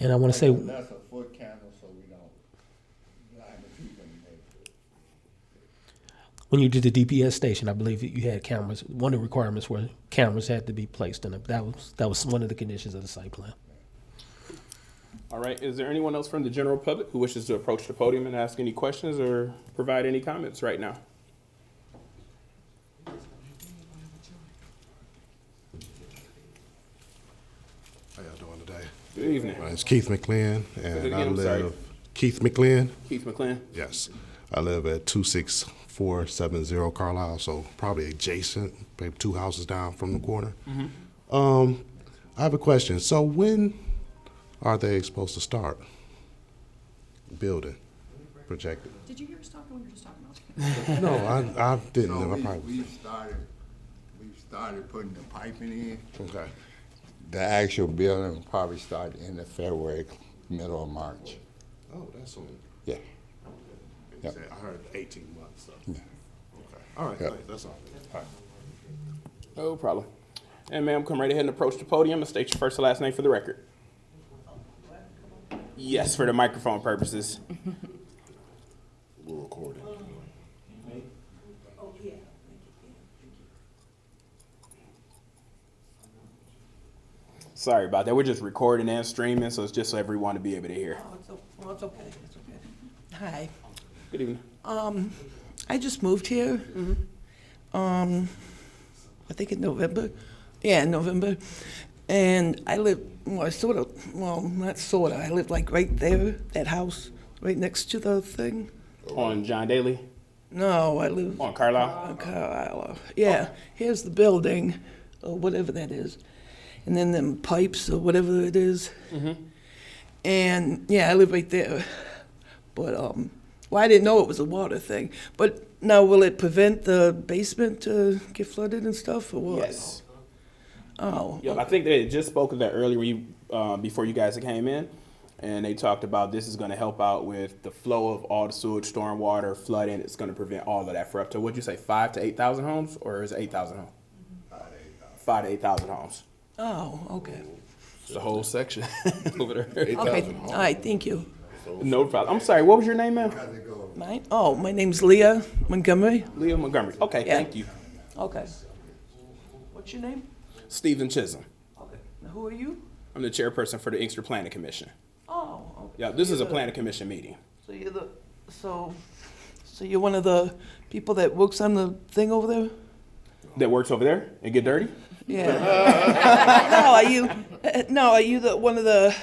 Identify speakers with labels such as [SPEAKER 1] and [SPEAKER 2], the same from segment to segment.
[SPEAKER 1] And I want to say,
[SPEAKER 2] That's a foot candle, so we don't blind the people in there.
[SPEAKER 1] when you did the DPS station, I believe that you had cameras. One of the requirements were cameras had to be placed in it. That was, that was one of the conditions of the site plan.
[SPEAKER 3] All right, is there anyone else from the general public who wishes to approach the podium and ask any questions or provide any comments right now?
[SPEAKER 4] How y'all doing today?
[SPEAKER 3] Good evening,
[SPEAKER 4] My name's Keith McLean, and
[SPEAKER 3] again,
[SPEAKER 4] I
[SPEAKER 3] I'm sorry.
[SPEAKER 4] live. Keith McLean.
[SPEAKER 3] Keith McLean.
[SPEAKER 4] Yes, I live at two six four seven zero Carlisle, so probably adjacent, maybe two houses down from the corner. Um, I have a question. So when are they supposed to start building? Projected?
[SPEAKER 5] Did you hear us talking? We were just talking about.
[SPEAKER 4] No, I, I didn't.
[SPEAKER 2] So
[SPEAKER 4] know. I
[SPEAKER 2] we,
[SPEAKER 4] probably.
[SPEAKER 2] we started, we started putting the piping in.
[SPEAKER 4] Okay.
[SPEAKER 2] The actual building will probably start in the February, middle of March.
[SPEAKER 4] Oh, that's on.
[SPEAKER 2] Yeah. Yep.
[SPEAKER 4] I heard eighteen months. So.
[SPEAKER 2] Yeah.
[SPEAKER 4] Okay. All right.
[SPEAKER 2] Yep.
[SPEAKER 4] thanks. That's all.
[SPEAKER 3] No problem. And ma'am, come right ahead and approach the podium and state your first and last name for the record. Yes, for the microphone purposes.
[SPEAKER 4] We're recording.
[SPEAKER 3] Sorry about that. We're just recording and streaming, so it's just so everyone to be able to hear.
[SPEAKER 5] Oh, it's, o- well, it's okay, it's okay. Hi,
[SPEAKER 3] Good evening.
[SPEAKER 5] I just moved here. Um, I think in November, yeah, in November. And I live, well, I sort of, well, not sort of, I live like right there, that house, right next to the thing.
[SPEAKER 3] On John Daly,
[SPEAKER 5] No, I live
[SPEAKER 3] on Carlisle.
[SPEAKER 5] on Carlisle. Yeah, here's the building, or whatever that is. And then them pipes, or whatever it is.
[SPEAKER 3] Mm-hmm.
[SPEAKER 5] And yeah, I live right there. But, um, well, I didn't know it was a water thing. But now, will it prevent the basement to get flooded and stuff, or what?
[SPEAKER 3] Yes.
[SPEAKER 5] Oh,
[SPEAKER 3] Yep, I think they had just spoke of that earlier when you, uh, before you guys came in, and they talked about this is going to help out with the flow of all the sewage, stormwater, flooding. It's going to prevent all of that for up to what'd you say, five to eight thousand homes, or is it eight thousand homes? Five to eight thousand homes.
[SPEAKER 5] oh, okay.
[SPEAKER 3] It's the whole section over there.
[SPEAKER 5] Okay, all right, thank you.
[SPEAKER 3] No problem. I'm sorry. What was your name, ma'am?
[SPEAKER 5] Mine, oh, my name's Leah Montgomery.
[SPEAKER 3] Leah Montgomery. Okay,
[SPEAKER 5] Yeah.
[SPEAKER 3] thank you.
[SPEAKER 5] Okay. What's your name?
[SPEAKER 3] Stephen Chisholm.
[SPEAKER 5] Okay. Now, Who are you?
[SPEAKER 3] I'm the chairperson for the Inkster Planning Commission.
[SPEAKER 5] Oh, okay.
[SPEAKER 3] Yeah, this is a
[SPEAKER 5] You're the-
[SPEAKER 3] planning commission meeting.
[SPEAKER 5] So you're the, so, so you're one of the people that works on the thing over there?
[SPEAKER 3] That works over there and get dirty.
[SPEAKER 5] Yeah. No, are you, no, are you the, one of the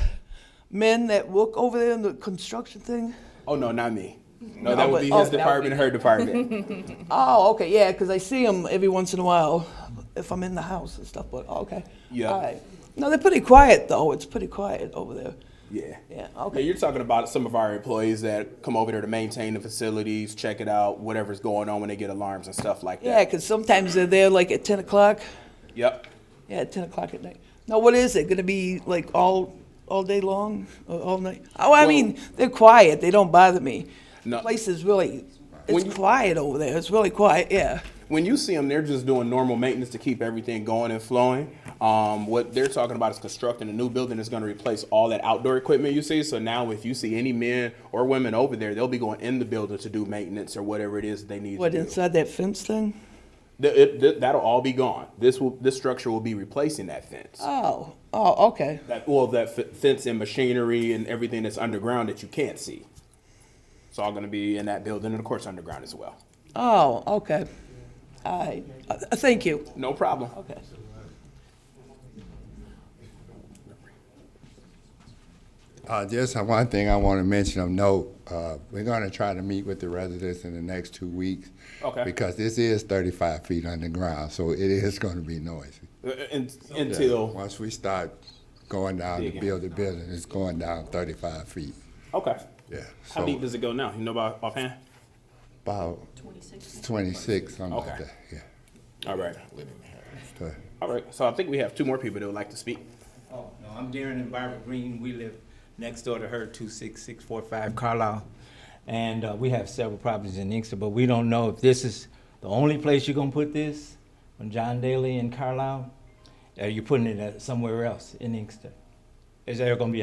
[SPEAKER 5] men that work over there in the construction thing?
[SPEAKER 3] Oh no, not me. No,
[SPEAKER 5] No,
[SPEAKER 3] that would
[SPEAKER 5] but-
[SPEAKER 3] be
[SPEAKER 5] oh,
[SPEAKER 3] his
[SPEAKER 5] that would
[SPEAKER 3] department, her department.
[SPEAKER 5] Oh, okay, yeah, 'cause I see them every once in a while if I'm in the house and stuff, but, okay.
[SPEAKER 3] Yeah.
[SPEAKER 5] All right. No, they're pretty quiet, though. It's pretty quiet over there.
[SPEAKER 3] Yeah.
[SPEAKER 5] Yeah,
[SPEAKER 3] Yeah,
[SPEAKER 5] okay.
[SPEAKER 3] you're talking about some of our employees that come over there to maintain the facilities, check it out, whatever's going on when they get alarms and stuff like
[SPEAKER 5] Yeah,
[SPEAKER 3] that.
[SPEAKER 5] 'cause sometimes they're there like at 10 o'clock.
[SPEAKER 3] Yep.
[SPEAKER 5] Yeah, ten o'clock at night. Now, what is it gonna be like all all day long or all night? Oh, I
[SPEAKER 3] Well-
[SPEAKER 5] mean, they're quiet. They don't bother me.
[SPEAKER 3] No.
[SPEAKER 5] The place is really
[SPEAKER 3] When
[SPEAKER 5] it's
[SPEAKER 3] you-
[SPEAKER 5] quiet over there. It's really quiet. Yeah.
[SPEAKER 3] When you see them, they're just doing normal maintenance to keep everything going and flowing. Um, what they're talking about is constructing a new building that's going to replace all that outdoor equipment you see. So now, if you see any men or women over there, they'll be going in the building to do maintenance or whatever it is they need
[SPEAKER 5] What
[SPEAKER 3] to do.
[SPEAKER 5] inside that fence thing?
[SPEAKER 3] Th- it- th- that'll all be gone. This will this structure will be replacing that fence.
[SPEAKER 5] Oh, oh, okay.
[SPEAKER 3] that well that f- fence and machinery and everything that's underground that you can't see. It's all going to be in that building and of course underground as well.
[SPEAKER 5] Oh, okay. All right. Uh, uh, thank you.
[SPEAKER 3] No problem.
[SPEAKER 5] Okay.
[SPEAKER 2] Uh, just one thing I want to mention of note, uh, we're going to try to meet with the residents in the next two weeks.
[SPEAKER 3] Okay.
[SPEAKER 2] Because this is thirty-five feet underground, so it is going to be noisy.
[SPEAKER 3] Uh, un- until
[SPEAKER 2] Once we start going down to
[SPEAKER 3] Digging.
[SPEAKER 2] build the building, it's going down thirty-five feet,
[SPEAKER 3] okay.
[SPEAKER 2] yeah.
[SPEAKER 3] How
[SPEAKER 2] So
[SPEAKER 3] deep does it go now? You know about offhand?
[SPEAKER 2] About twenty-six, something like
[SPEAKER 3] Okay.
[SPEAKER 2] that, yeah.
[SPEAKER 3] All right.
[SPEAKER 2] So-
[SPEAKER 3] All right. So I think we have two more people that would like to speak.
[SPEAKER 6] Oh, no, I'm Darren and Barbara Green. We live next door to her, two six six four five Carlisle. And uh, we have several properties in Inkster, but we don't know if this is the only place you're gonna put this on John Daly in Carlisle. Or you putting it at somewhere else in Inkster? Is there gonna be